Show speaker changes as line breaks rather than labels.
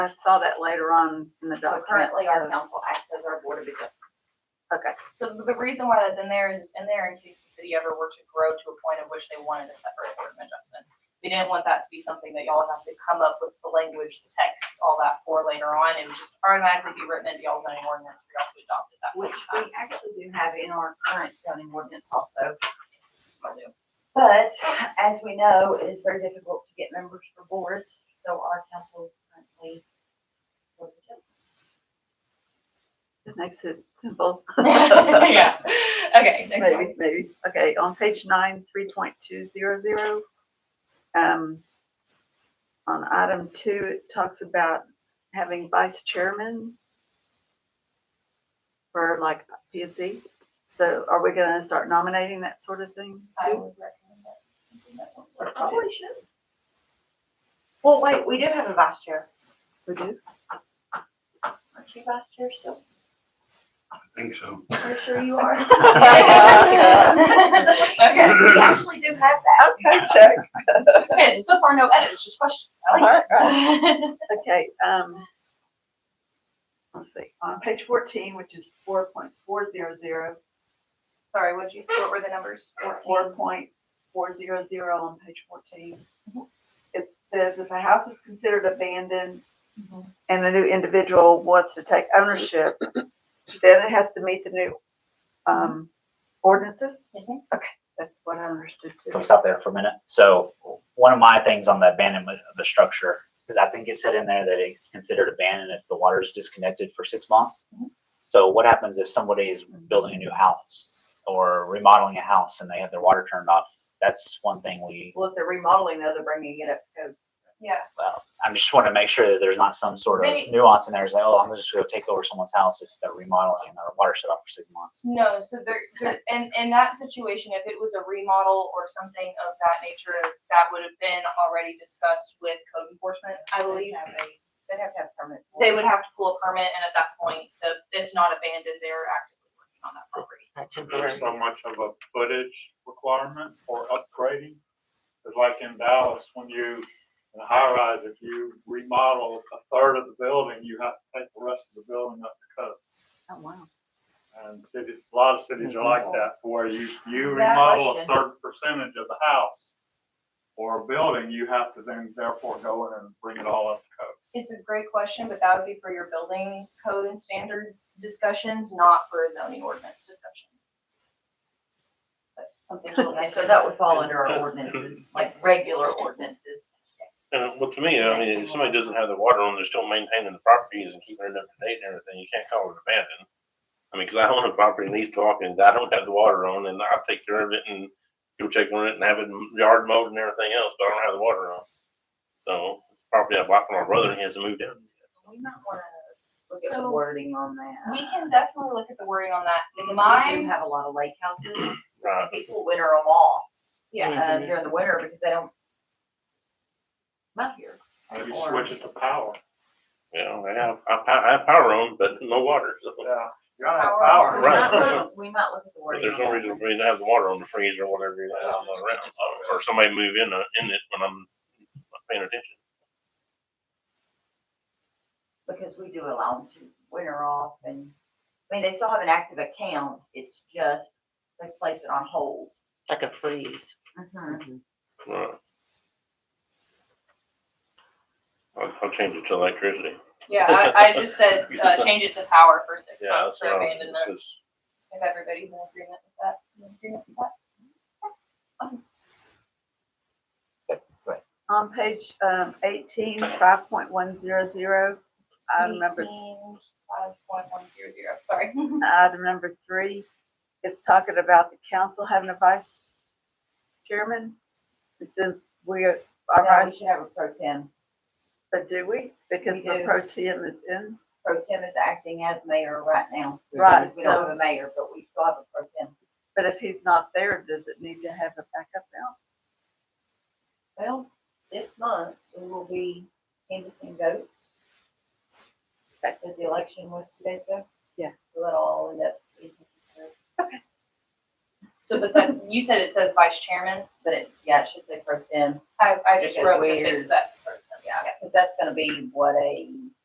I saw that later on in the
So
document.
currently,
so-
our council acts as our board of adjustment.
Okay,
uh, So the reason why that's in there is it's in there in case the city ever were to grow to a point of which they wanted a separate board of adjustments. We didn't want that to be something that y'all have to come up with the language, the text, all that for later on. It would just automatically be written into y'all's zoning ordinance for y'all to adopt at that point
Which
in
we
time.
actually do have in our current zoning ordinance also.
Yes, I do.
But as we know, it is very difficult to get members for boards, so our council is currently. board of adjustment.
it makes it simple.
Yeah, okay, next one.
Maybe, maybe. Okay, on page nine, three point two zero zero. Um, on item two, it talks about having vice chairman for like P and Z. So are we gonna start nominating that sort of thing?
I
too?
would recommend that. something that looks
So
like
it
that.
Probably should. Well, wait, we do have a vice chair.
We do?
Aren't you vice chair still?
think so.
Pretty sure you are.
Okay,
We actually do have that.
Okay, check.
okay, so so far no edits, just questions. I like this.
Okay, um, let's see, on page fourteen, which is four point four zero zero,
Sorry, what'd you, what were the numbers?
four point four zero zero on page fourteen. It says if a house is considered abandoned
Mhm.
and the new individual wants to take ownership, then it has to meet the new, um, ordinances?
Yes, ma'am.
Okay, that's what I understood
Can we
too.
stop there for a minute? So one of my things on the abandonment of a structure, because I think it said in there that it's considered abandoned if the water is disconnected for six months.
Mhm.
So what happens if somebody is building a new house or remodeling a house and they have their water turned off? That's one thing we,
Well, if they're remodeling, though, they're bringing it up to code.
Yeah,
well, I just want to make sure that there's not some sort of
They-
nuance in there. It's like, oh, I'm just gonna take over someone's house if they're remodeling and their water shut off for six months.
No, so there, there, in, in that situation, if it was a remodel or something of that nature, that would have been already discussed with code enforcement, I believe.
They'd have to have permit. for
They
it.
would have to pull a permit, and at that point, the, it's not abandoned, they're actively working on that property.
There's so much of a footage requirement for upgrading. It's like in Dallas, when you, in a high rise, if you remodel a third of the building, you have to take the rest of the building up to code.
Oh, wow.
And cities, a lot of cities are like that, where you, you
That
remodel a
question.
certain percentage of the house or a building, you have to then therefore go in and bring it all up to code.
It's a great question, but that would be for your building code and standards discussions, not for a zoning ordinance discussion. But Something. to look
Okay,
at.
so that would fall under our ordinances, like
Yes.
regular ordinances.
And uh, well, to me, I mean, if somebody doesn't have the water on, they're still maintaining the properties and keeping it up to date and everything. You can't call it abandoned. I mean, because I own a property in East Hawkins, I don't have the water on, and I take care of it and go check on it and have it yard mowed and everything else, but I don't have the water on. So it's property I bought from my brother and he hasn't moved in.
We might wanna look at the
So,
wording on that.
We can definitely look at the wording on that.
Because We do
Mine,
have a lot of lake houses,
Right.
people winter them off,
yeah,
uh, during the winter because they don't. come Out here.
Maybe
Or-
switch it to power.
You know, I have, I pa- I have power on, but no water. So
Yeah, you gotta have
Power.
So
power.
we
Right.
might look- We might look at the
but
wording.
there's no
on
reason
that.
for me to have the water on the freezer or whatever, you know, I'm not around, so- or somebody move in, uh, in it when I'm not paying attention.
Because we do allow them to winter off and, I mean, they still have an active account, it's just they place it on hold.
It's like a freeze.
Mhm.
Right. I'll, I'll change it to electricity.
yeah, I, I just said, uh, change it to power for six
Yeah,
months
that's
for
what I was-
abandonment,
'cause
if everybody's in agreement with that. You in agreement with that?
On page, um, eighteen, five point one zero zero, item number
18, 5.100, sorry.
Item number three, it's talking about the council having a vice chairman. And since we're, our
Now, we
vice,
should have a pro tem,
but do we? Because
We
the
do.
pro tem is in,
pro tem is acting as mayor right now.
Right,
We don't
so-
have a mayor, but we still have a pro tem.
but if he's not there, does it need to have a backup now?
Well, this month, we will be canvassing votes. Because the election was two days ago.
Yeah.
So that all end up, being considered.
So, but then, you said it says vice chairman,
but it, yeah, it should say pro tem,
I, I just
Because
wrote to
we're-
fix that. Yeah,
because that's gonna be what a